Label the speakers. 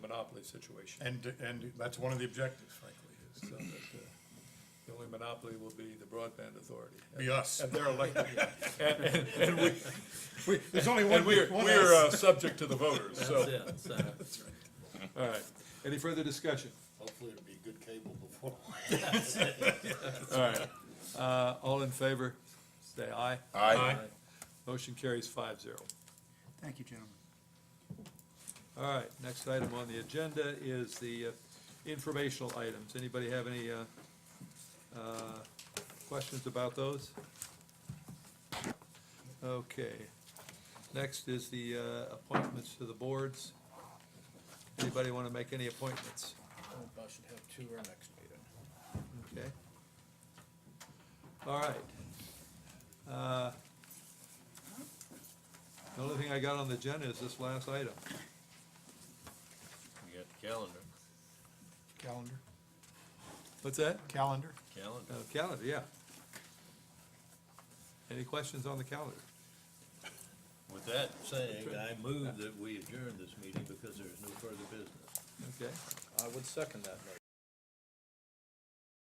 Speaker 1: monopoly situation.
Speaker 2: And, and that's one of the objectives, frankly, is
Speaker 1: So that, uh, The only monopoly will be the broadband authority.
Speaker 2: be us.
Speaker 1: And they're elected, and, and, and we,
Speaker 2: We- There's only one,
Speaker 1: and we're,
Speaker 2: one
Speaker 1: we're,
Speaker 2: us.
Speaker 1: uh, subject to the voters, so,
Speaker 3: That's it, so
Speaker 1: uh, all right. Any further discussion?
Speaker 4: Hopefully it'll be good cable before.
Speaker 1: All right, uh, all in favor, say aye.
Speaker 2: Aye.
Speaker 1: Motion carries five zero.
Speaker 5: Thank you, gentlemen.
Speaker 1: All right, next item on the agenda is the uh, informational items. Anybody have any, uh, uh, questions about those? Okay, next is the, uh, appointments to the boards. Anybody wanna make any appointments?
Speaker 3: I should have two our next meeting.
Speaker 1: Okay. All right. Uh, The only thing I got on the agenda is this last item.
Speaker 3: We got the calendar,
Speaker 5: Calendar,
Speaker 1: What's that?
Speaker 5: calendar.
Speaker 3: calendar.
Speaker 1: Uh, Calendar, yeah. Any questions on the calendar?
Speaker 3: With that saying, I move that we adjourn this meeting because there is no further business.
Speaker 1: Okay.
Speaker 6: I would second that motion.